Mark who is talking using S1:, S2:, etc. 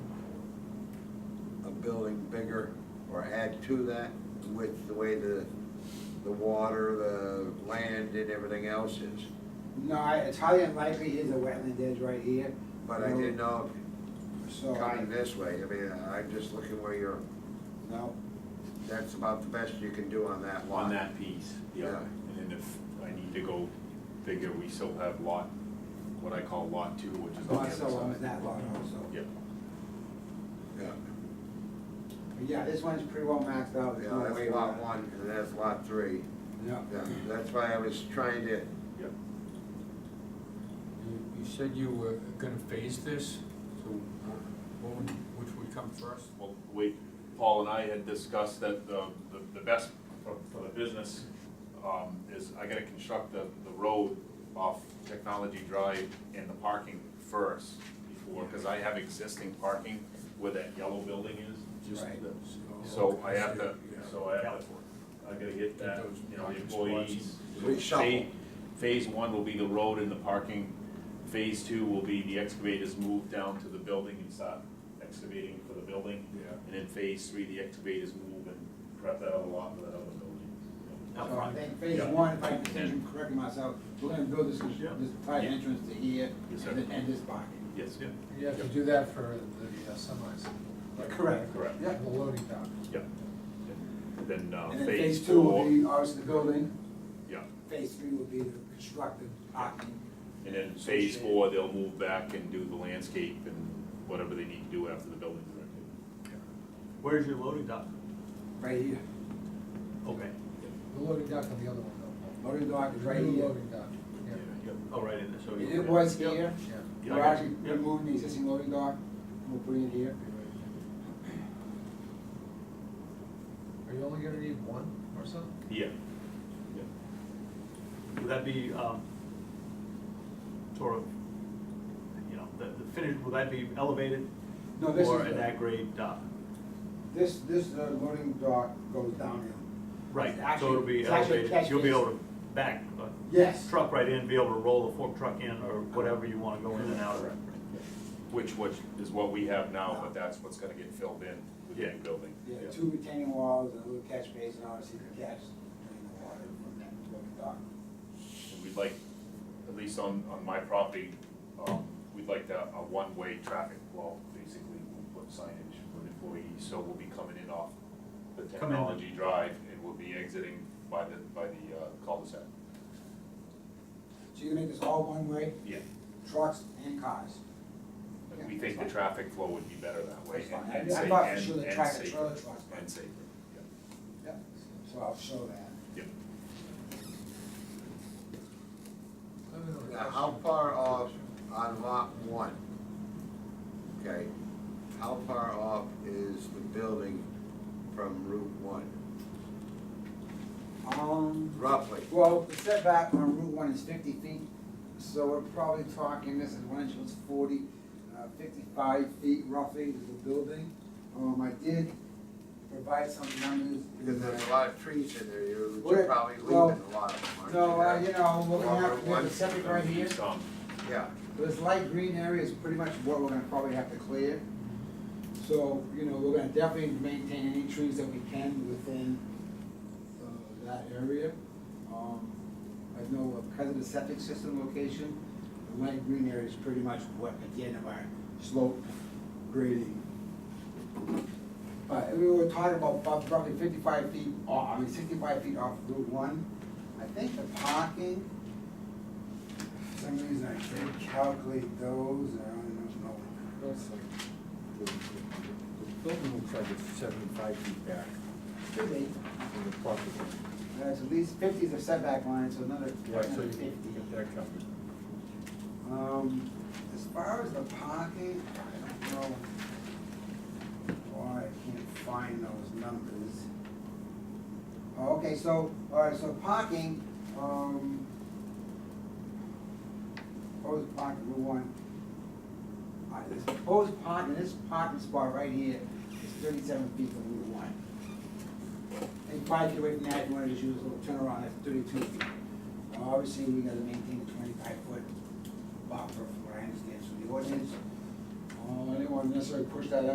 S1: building bigger or add to that with the way the, the water, the land and everything else is.
S2: No, I- it's highly unlikely is a wetland is right here.
S1: But I
S2: No,
S1: didn't know if
S2: So, I-
S1: coming this way, I mean, I'm just looking where you're,
S2: no,
S1: that's about the best you can do on that lot.
S3: on that piece, yeah.
S1: Yeah.
S3: And then if I need to go bigger, we still have lot, what I call lot two, which is on the
S2: also
S3: other
S2: owns
S3: side.
S2: that lot also.
S3: Yeah,
S1: Yeah,
S2: But Yeah, this one's pretty well maxed out. There's
S1: yeah,
S2: no way
S1: that's lot one, and that's lot three.
S2: No.
S1: Yeah, That's why I was trying to,
S3: yeah.
S4: You you said you were gonna phase this, so wh- what would, which would come first?
S3: Well, we, Paul and I had discussed that the, the- the best for, for the business, um, is I gotta construct the, the road off Technology Drive and the parking first before, cause I have existing parking where that yellow building is. just
S2: Right.
S3: the- So I have to, so I have to, I gotta get that, you know, the employees.
S1: Reshuffle.
S3: Phase one will be the road and the parking, phase two will be the excavators move down to the building and start excavating for the building.
S4: Yeah.
S3: And then phase three, the excavators move and prep that other lot for that other building.
S2: So I think phase
S3: Yeah.
S2: one, if I can correct myself, we're gonna build this,
S3: Yeah.
S2: this tight entrance to here
S3: Yes,
S2: and
S3: sir.
S2: th- and this parking.
S3: Yes, yeah,
S5: You have to do that for the uh, semis,
S2: Correct.
S3: correct,
S2: Yeah.
S5: the loading dock.
S3: yeah. Then, uh,
S2: And then
S3: phase
S2: phase two will
S3: four,
S2: be obviously the building,
S3: yeah,
S2: phase three will be the constructed parking.
S3: and then phase four, they'll move back and do the landscape and whatever they need to do after the building's erected.
S6: Where's your loading dock?
S2: Right here,
S6: Okay.
S5: The loading dock on the other one though.
S2: loading dock is right
S5: New
S2: here.
S5: Loading dock, yeah,
S6: Oh, right in there, so. you-
S2: It was here,
S5: yeah.
S3: Yeah,
S2: we're
S3: I got
S2: actually
S6: you. Yeah.
S2: removing the existing loading dock, we're putting it here.
S5: Are you only gonna need one or so?
S3: Yeah, yeah.
S6: Would that be, um, sort of, you know, the, the finish, will that be elevated?
S2: No, this
S6: Or
S2: is-
S6: an at-grade dock?
S2: This, this uh, loading dock goes downhill.
S6: Right,
S2: It's actually-
S6: so it'll be
S2: it's actually
S6: elevated,
S2: catch
S6: you'll be able
S2: basin.
S6: to back a
S2: Yes.
S6: truck right in, be able to roll a fork truck in, or whatever you wanna go in and out of.
S3: Which, which is what we have now, but that's what's gonna get filled in with the new building.
S2: Yeah, two retaining walls, and a little catch basin, obviously, to catch drain the water from that loading dock.
S3: And We'd like, at least on, on my property, um, we'd like to, a one-way traffic flow, basically, we'll put signage for employees, so we'll be coming in off the
S6: Come in.
S3: technology drive, and we'll be exiting by the, by the uh, cul-de-sac.
S2: So you make this all one way,
S3: Yeah.
S2: trucks and cars.
S3: And we think the traffic flow would be better that way,
S2: That's fine.
S3: and,
S2: I-
S3: and sa-
S2: I thought for
S3: and-
S2: sure the
S3: and
S2: tractor
S3: safer,
S2: trailer trucks, but-
S3: and safer, yeah,
S2: Yep. So I'll show that.
S3: yeah.
S5: I have another
S1: Now, how
S5: question.
S1: far off on lot one? Okay, how far off is the building from Route one?
S2: Um,
S1: Roughly,
S2: well, the setback on Route one is fifty feet, so we're probably talking, this is one inch, it's forty, uh, fifty-five feet roughly to the building. Um, I did provide some numbers. in
S1: because there's a
S2: the-
S1: lot of trees in there, you're
S2: Well,
S1: you're probably leaving
S2: well,
S1: a lot of them, aren't you?
S2: So, uh, you know, we're
S1: Well,
S2: gonna have to
S1: one-
S2: do the septic right here.
S3: Some,
S1: Yeah,
S2: This light green area is pretty much what we're gonna probably have to clear. So, you know, we're gonna definitely maintain any trees that we can within, uh, that area. Um, I know because of the septic system location, the light green area is pretty much what, at the end of our slope grading. But we were talking about bu- roughly fifty-five feet off, I mean sixty-five feet off Route one. I think the parking, for some reason I can't calculate those, I don't know.
S4: That's like, the, the- the building looks like it's seventy-five feet back
S2: Could be.
S4: from the property.
S2: Uh, It's at least fifty is a setback line, so another
S4: Yeah, so
S2: another
S4: you
S2: fifty.
S4: can get that covered.
S2: Um, as far as the parking, I don't know why I can't find those numbers. Oh, Okay, so, all right, so parking, um, proposed parking, Route one. All right, this proposed parking, this parking spot right here is thirty-seven feet from Route one. And five feet away from that, you wanna just use a little turnaround, that's thirty-two feet. Now, Obviously, we gotta maintain the twenty-five foot buffer, from what I understand, so the ordinance, uh, I didn't wanna necessarily push that